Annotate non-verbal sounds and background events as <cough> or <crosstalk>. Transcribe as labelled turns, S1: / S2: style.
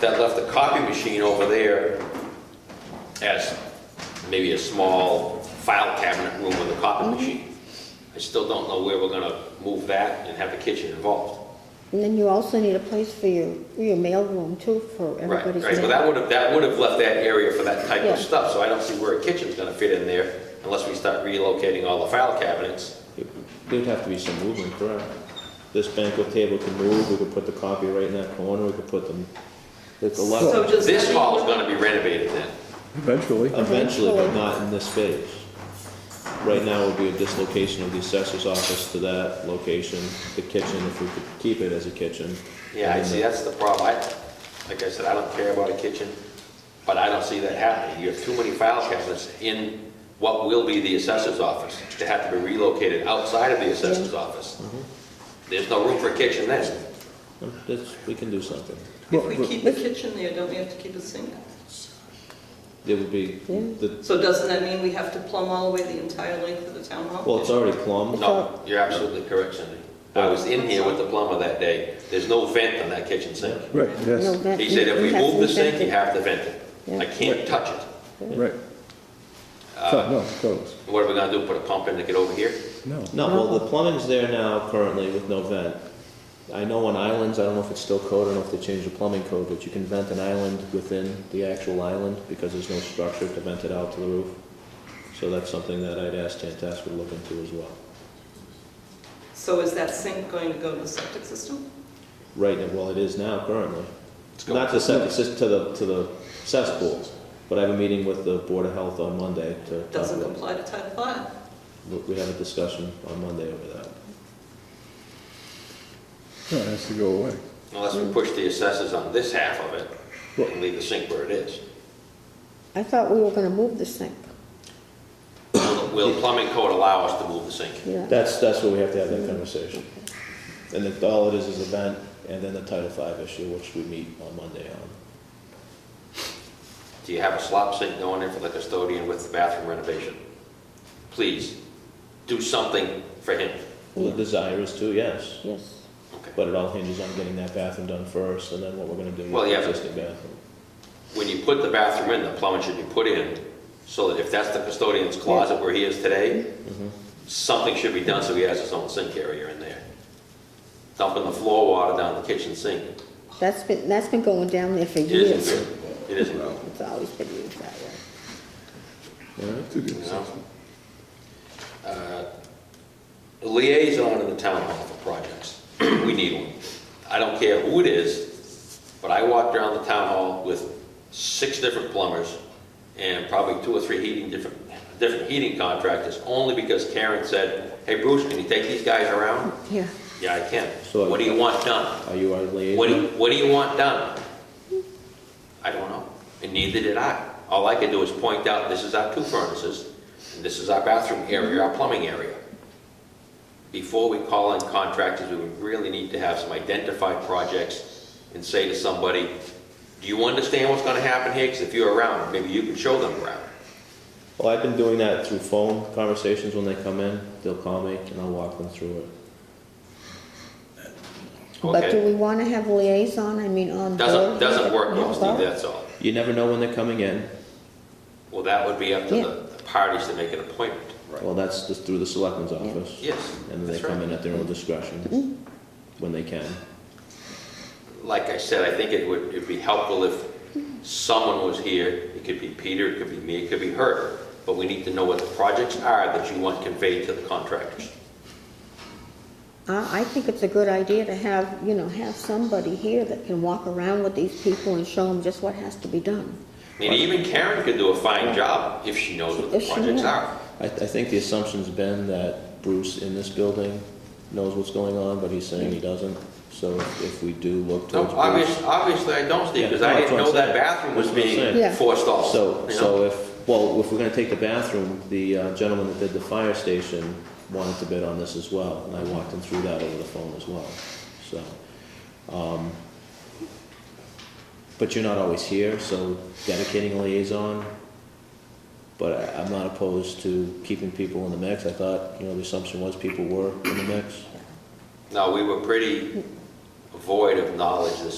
S1: that left the copy machine over there as maybe a small file cabinet room with a
S2: Mm-hmm.
S1: copy machine. I still don't know where we're gonna move that and have the kitchen involved.
S2: And then you also need a place for your, your mailroom too, for
S1: Right,
S2: everybody's
S1: right,
S2: mail.
S1: but that would have, that would have left that area for that type
S2: Yeah.
S1: of stuff, so I don't see where a kitchen's gonna fit in there unless we start relocating all the file cabinets.
S3: There'd have to be some movement, correct? This banquet table can move, we could put the copy right in that corner, we could put them, it's a lot,
S4: So does that
S1: This
S4: mean-
S1: hall is gonna be renovated then.
S5: Eventually.
S3: eventually, but not in this space. Right now would be a dislocation of the assessor's office to that location, the kitchen, if we could keep it as a kitchen.
S1: Yeah, I
S3: And
S1: see,
S3: then
S1: that's the problem. I, like I said, I don't care about a kitchen, but I don't see that happening. You have too many file cabinets in what will be the assessor's office to have to be relocated outside of the assessor's
S2: Mm-hmm.
S1: office. There's no room for a kitchen then.
S3: the- um, that's- we can do something.
S4: If we keep the kitchen there, don't we have to keep a sink?
S3: It would be, the,
S4: So doesn't that mean we have to plumb all the way the entire length of the town hall?
S3: well, it's already plumbed,
S1: No, you're absolutely correct, Cindy. I was in here with the plumber that day. There's no vent on that kitchen sink.
S5: Right,
S2: No,
S5: yes,
S2: that-
S1: He said if we
S2: you have
S1: move the
S2: to
S1: sink,
S2: vent
S1: you
S2: it.
S1: have to vent it. I
S2: Yeah.
S1: can't touch it.
S5: right. So, no, close.
S1: What are we gonna do, put a pump in to get over here?
S5: No.
S3: no, well, the plumbing's there now currently with no vent. I know on islands, I don't know if it's still code, I don't know if they changed the plumbing code, but you can vent an island within the actual island because there's no structure to vent it out to the roof. So that's something that I'd ask Tantascwa to look into as well.
S4: So is that sink going to go to the septic system?
S3: Right, now- well, it is now currently.
S1: It's going-
S3: Not to septic, sys- to the, to the cesspool, but I have a meeting with the Board of Health on Monday to talk
S4: Doesn't
S3: about.
S4: comply to Title Five.
S3: we- We have a discussion on Monday over that.
S5: No, it has to go away.
S1: Unless
S2: Mm.
S1: we push the assessors on this half of it and leave the sink where it is.
S2: I thought we were gonna move the sink,
S1: Will- Will plumbing code allow us to move the sink?
S2: yeah.
S3: That's, that's where we have to have that conversation. And then all it is is event, and then the Title V issue, which we meet on Monday on.
S1: Do you have a slop sink going in for the custodian with the bathroom renovation? Please, do something for him.
S3: Well, The desire is to, yes,
S2: Yes.
S1: Okay.
S3: but it all hinges on getting that bathroom done first, and then what we're gonna do
S1: Well,
S3: with
S1: yeah,
S3: the
S1: but-
S3: existing bathroom.
S1: When you put the bathroom in, the plumbing should be put in, so that if that's the custodian's closet where he is today, something should be done so he has his own sink area in there. Dumping the floor water down the kitchen sink.
S2: That's been, that's been going down there for
S1: It
S2: years.
S1: isn't good. It isn't good.
S2: It's always been used that way.
S1: you know? Uh, Liaison in the town hall for projects, <clears throat> we need one. I don't care who it is, but I walked around the town hall with six different plumbers and probably two or three heating, different, different heating contractors, only because Karen said, hey Bruce, can you take these guys around?
S2: Yeah.
S1: Yeah, I can.
S3: So-
S1: What do you want done?
S3: Are you our liaison?
S1: What do, you- what do you want done? I don't know, and neither did I. All I could do is point out, this is our two furnaces, and this is our bathroom area, our plumbing area. Before we call in contractors, we would really need to have some identified projects and say to somebody, do you understand what's gonna happen here? Because if you're around, maybe you can show them around.
S3: Well, I've been doing that through phone conversations when they come in, they'll call me and I'll walk them through it.
S2: But do
S1: Okay?
S2: we wanna have liaison, I mean, on board?
S1: Doesn't, doesn't work,
S2: No,
S1: though, Steve, that's all.
S3: You never know when they're coming in,
S1: Well, that would be up to
S2: Yeah.
S1: the the parties to make an appointment.
S3: well, that's just through the selectmen's office.
S1: Yes,
S3: And then they
S1: that's
S3: come
S1: right.
S3: in at their own discretion, when they can.
S1: like I said, I think it would, it'd be helpful if someone was here. It could be Peter, it could be me, it could be her. But we need to know what the projects are that you want conveyed to the contractors.
S2: I, I think it's a good idea to have, you know, have somebody here that can walk around with these people and show them just what has to be done.
S1: I mean, even Karen could do a fine job if she knows what the
S2: If she
S1: projects
S2: knew.
S1: are.
S3: I, I think the assumption's been that Bruce in this building knows what's going on, but he's saying he doesn't. So if if we do look
S1: No,
S3: towards Bruce.
S1: Oh, obviously, obviously I don't, Steve,
S3: Yeah,
S1: because
S3: no,
S1: I
S3: that's
S1: didn't
S3: what
S1: know
S3: I'm
S1: that
S3: saying.
S1: bathroom was
S3: That's what I'm
S1: being
S2: saying. Yeah.
S1: forestalled.
S3: So,
S1: you
S3: so
S1: know?
S3: if, well, if we're gonna take the bathroom, the uh, gentleman that did the fire station wanted to bid on this as well, and I walked him through that over the phone as well, so. um, But you're not always here, so dedicating a liaison, but I- I'm not opposed to keeping people in the mix. I thought, you know, the assumption was people were in the mix.
S1: No, we were pretty void of knowledge this